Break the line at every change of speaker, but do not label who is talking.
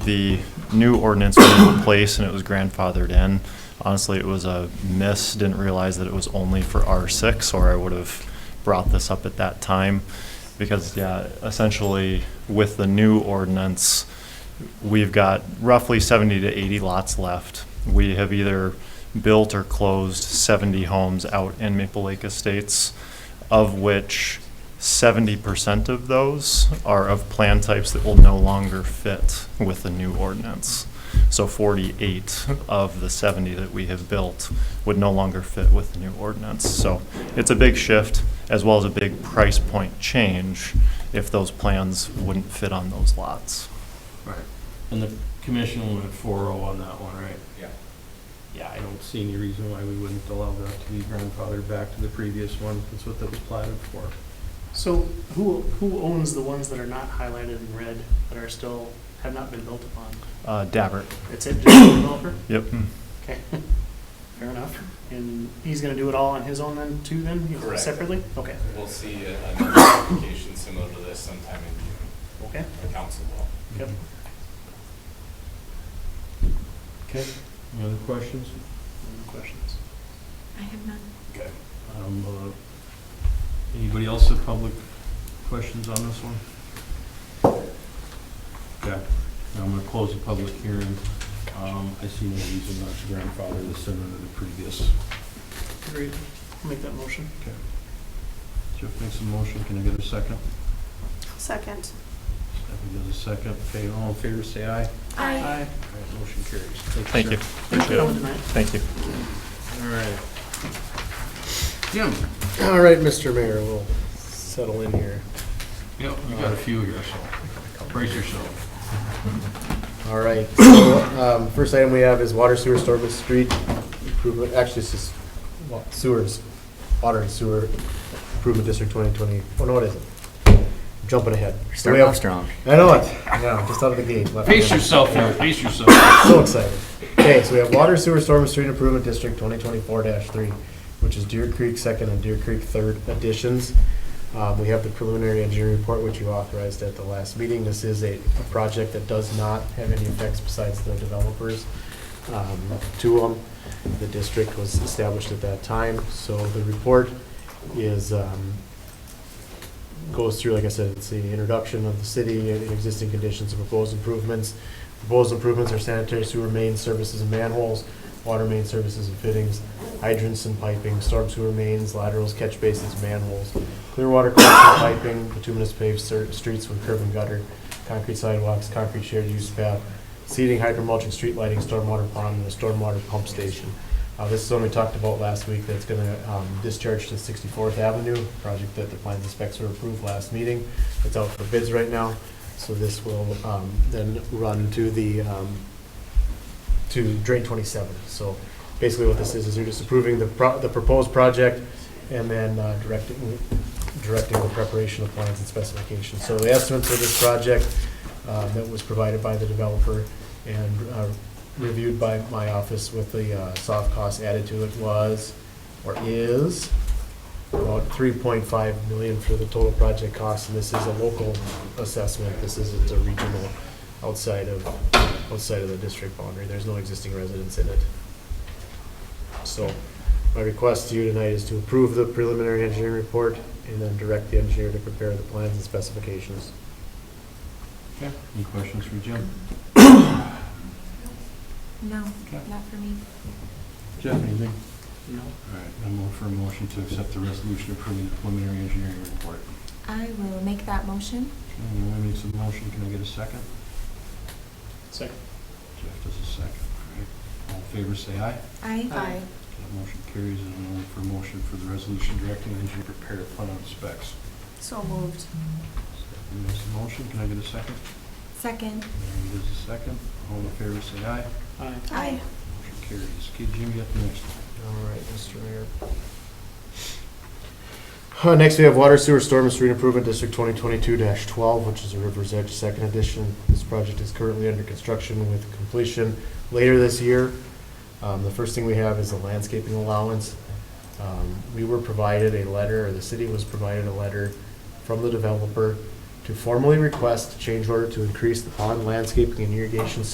The new ordinance was in place and it was grandfathered in. Honestly, it was a miss, didn't realize that it was only for R6, or I would have brought this up at that time. Because, yeah, essentially, with the new ordinance, we've got roughly 70 to 80 lots left. We have either built or closed 70 homes out in Maple Lake Estates, of which 70% of those are of plan types that will no longer fit with the new ordinance. So 48 of the 70 that we have built would no longer fit with the new ordinance. So it's a big shift, as well as a big price point change if those plans wouldn't fit on those lots.
Right. And the commission went four oh on that one, right?
Yeah.
Yeah, I don't see any reason why we wouldn't allow that to be grandfathered back to the previous one. That's what that was platted for.
So who, who owns the ones that are not highlighted in red that are still, have not been built upon?
Uh, Dabbert.
It's it, just the developer?
Yep.
Okay, fair enough. And he's gonna do it all on his own then, too, then, You know,
Correct.
separately? Okay,
We'll see a- another application similar to this sometime in June,
okay,
the council will.
yep.
Okay. Any other questions?
No questions?
I have none.
Um, uh, Anybody else have public questions on this one? Okay, Now I'm gonna close the public hearing. Um, I see no reason not to grandfather this in under the previous.
Agreed. I'll Make that motion.
Jeff makes a motion, can I get a second?
Second.
Stephanie does a second. Okay, all in favor, say aye.
I
All right, motion carries.
Thank you. Appreciate
Coming
it.
tonight.
Thank you.
All right. Jim?
All right, Mr. Mayor, we'll settle in here.
Yep, you got a few here, so brace yourself.
All right, so, um, first item we have is water sewer storm and street improvement, actually, it's just wa- sewers, water and sewer improvement district 2020. Oh, no, it isn't. Jumping ahead. So we
Starting off
have-
strong.
I know it, yeah, just out of the gate. left
Pace
hand.
yourself here, pace yourself.
So excited. Okay, so we have water sewer storm and street improvement district twenty twenty-four three, which is Deer Creek second and Deer Creek third additions. Um, we have the preliminary engineering report, which you authorized at the last meeting. This is a, a project that does not have any effects besides the developers, um, to them. The district was established at that time, so the report is, um, goes through, like I said, it's the introduction of the city, and existing conditions, and proposed improvements, Proposed improvements are sanitary sewer main services and manholes, water main services and fittings, hydrants and piping, storm sewer mains, laterals, catch basins, manholes, clear water collection piping, bituminous paved cer- streets with curb and gutter, concrete sidewalks, concrete shared use path, seating, hydromulching, street lighting, stormwater pond, and a stormwater pump station. Uh, this is one we talked about last week that's gonna, um, discharge to Sixty-fourth Avenue, project that the plans and specs were approved last meeting. It's out for bids right now. So this will um, then run to the, um, to Drain 27. So basically what this is, is you're just approving the pro- the proposed project and then uh, directing, directing the preparation of plans and specifications. So the estimate for this project uh, that was provided by the developer and uh, reviewed by my office with the uh, soft cost added to it was, or is, about 3.5 million for the total project cost, and this is a local assessment. This isn't a regional outside of, outside of the district boundary. There's no existing residents in it. So my request to you tonight is to approve the preliminary engineering report and then direct the engineer to prepare the plans and specifications.
Any questions for Jim?
No,
Okay.
not for me.
Jeff, anything?
No.
All right, I'm all for a motion to accept the resolution approving the preliminary engineering report.
I will make that motion.
Okay, Roy makes a motion, can I get a second?
Second.
Jeff does a second, all right. All in favor, say aye.
I.
Aye.
That motion carries, and I'm all for a motion for the resolution directing the engineer to prepare a plan on specs.
So moved.
Stephanie makes a motion, can I get a second?
Second.
Mary does a second. All in favor, say aye.
Aye.
I.
Motion carries. Okay, Jim, you got the next one.
All right, Mr. Mayor. Uh, Next, we have Water Sewer Storm and Street Improvement District 2022-12, which is a River's Edge Second Edition. This project is currently under construction with completion later this year. Um, The first thing we have is a landscaping allowance. Um, We were provided a letter, or the city was provided a letter from the developer to to formally request a change order to increase the pond landscaping and irrigation